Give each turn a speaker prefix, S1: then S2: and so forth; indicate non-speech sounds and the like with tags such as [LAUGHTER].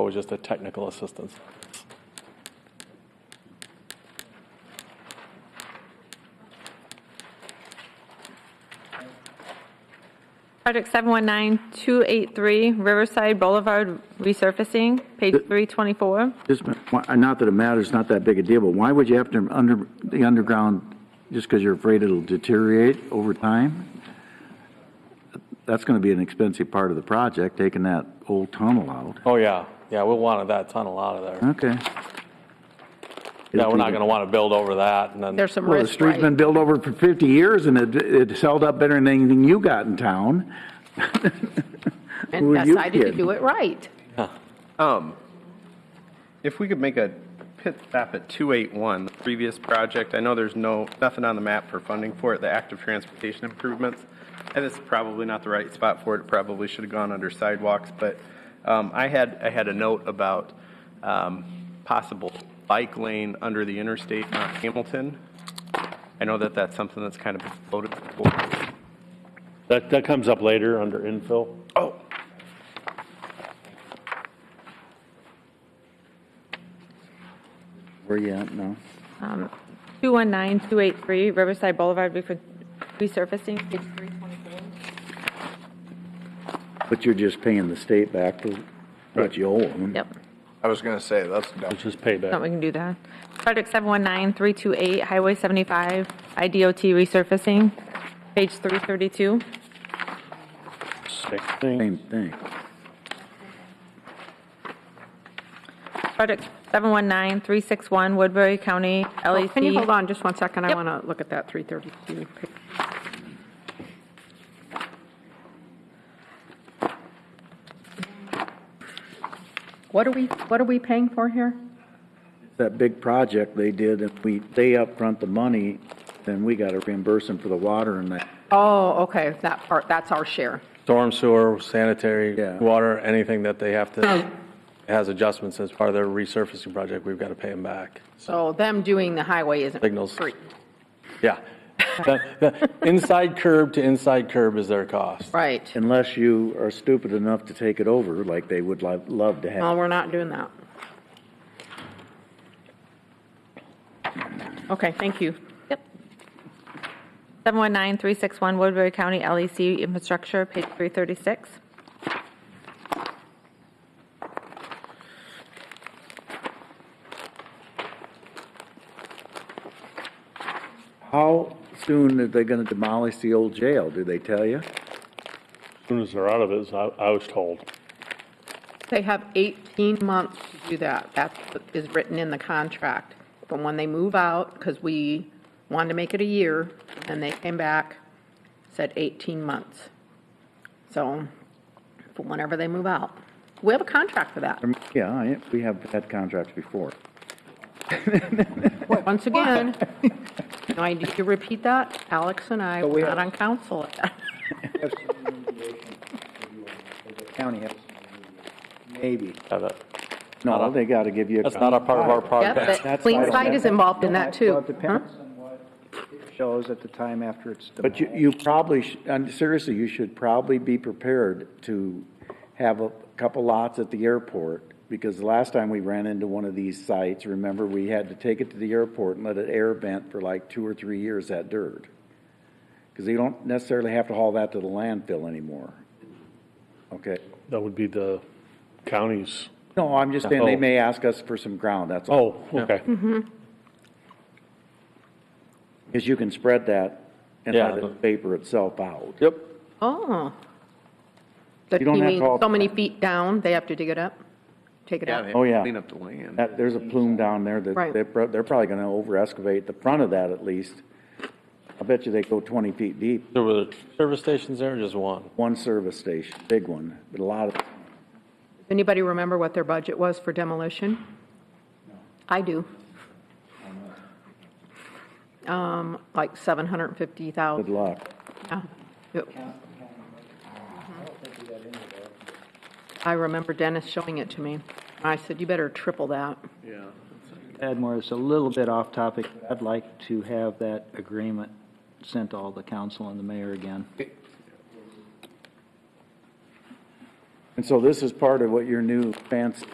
S1: was just a technical assistance.
S2: Project 719-283 Riverside Boulevard resurfacing, page 324.
S3: Just, why- not that it matters, not that big a deal, but why would you have to under, the underground, just because you're afraid it'll deteriorate over time? That's going to be an expensive part of the project, taking that old tunnel out.
S1: Oh, yeah, yeah, we wanted that tunnel out of there.
S3: Okay.
S1: Yeah, we're not going to want to build over that and then,
S4: There's some
S3: Well, the
S4: risk,
S3: street's
S4: right?
S3: been built over for 50 years and it, it's held up better than anything you got in town. Who
S4: And
S3: are you
S4: decided to
S3: kidding?
S4: do it right.
S5: Um, if we could make a pit stop at two eight one, the previous project, I know there's no, nothing on the map for funding for it, the active transportation improvements. And it's probably not the right spot for it, It probably should have gone under sidewalks, but, um, I had, I had a note about, um, possible bike lane under the interstate on Hamilton. I know that that's something that's kind of floated. before.
S6: That, that comes up later under infill.
S5: Oh,
S3: Where you at now?
S2: 219-283 Riverside Boulevard refor- resurfacing, page 324.
S3: But you're just paying the state back for what you owe them.
S2: Yep,
S7: I was gonna say, that's dumb.
S6: It's just payback.
S2: so we can do that. Project 719-328 Highway 75 IDOT resurfacing, page 332.
S6: Same thing.
S3: Same thing.
S2: Project 719-361 Woodbury County E
S4: Oh,
S2: LEC.
S4: Can you hold on just one second? I
S2: Yep.
S4: want to look at that 332. page. What are we, what are we paying for here?
S3: that big project they did, if we, they upfront the money, then we gotta reimburse them for the water and that.
S4: Oh, okay, that part, that's our share.
S1: storm sewer, sanitary,
S3: Yeah.
S1: water, anything that they have to, has adjustments as part of their resurfacing project, we've got to pay them back.
S4: So them doing the highway isn't
S1: Signals.
S4: free. Oh.
S1: Yeah. The- the Inside curb to inside curb is their cost.
S4: Right.
S3: Unless you are stupid enough to take it over, like they would love, love to
S4: Well,
S3: have.
S4: we're not doing that. Okay, thank you.
S2: Yep. 719-361 Woodbury County LEC Infrastructure, page 336.
S3: How soon are they gonna demolish the old jail, do they tell you?
S6: As soon as they're out of it, is I, I was told.
S4: They have 18 months to do that. That is written in the contract. From when they move out, because we wanted to make it a year, and they came back, said 18 months. So, from whenever they move out. We have a contract for that.
S3: Yeah, I- we have had contracts before.
S4: Once again, [LAUGHS] no, I need to repeat that. Alex and I were not on council [LAUGHS] at that.
S3: County has. Maybe.
S1: Have it.
S3: No, they gotta give you. a
S1: That's not a part of our
S4: Yep,
S1: project.
S4: that Clean Site is involved in that, too.
S8: Well, it depends on what it shows at the time after it's
S3: But you,
S8: demolished.
S3: you probably, sh- and seriously, you should probably be prepared to have a couple lots at the airport, because the last time we ran into one of these sites, remember, we had to take it to the airport and let it air vent for like two or three years, that dirt. Because you don't necessarily have to haul that to the landfill anymore. Okay?
S6: That would be the county's.
S3: No, I'm just saying, they
S6: Oh.
S3: may ask us for some ground, that's all.
S6: Oh, okay.
S3: Because you can spread that and
S1: Yeah.
S3: let it vapor itself out.
S1: Yep.
S4: Oh. But
S3: You
S4: you
S3: don't have to
S4: mean
S3: all-
S4: so many feet down, they have to dig it up? Take it
S5: yeah,
S4: up?
S5: they
S3: Oh, yeah.
S5: clean up the land.
S3: That, there's a plume down there that
S4: Right.
S3: they're, pro- they're probably gonna over excavate the front of that at least. I bet you they go twenty feet deep,
S1: There were service stations there, or just one?
S3: one service station, big one, but a lot of,
S4: Anybody remember what their budget was for demolition? I do. Um, like seven hundred and fifty
S3: good
S4: thousand,
S3: luck.
S4: yeah. Yep. I remember Dennis showing it to me. I said, you better triple that.
S8: Padmore, it's a little bit off topic. I'd like to have that agreement sent to all the council and the mayor again.
S3: And so this is part of what your new fancy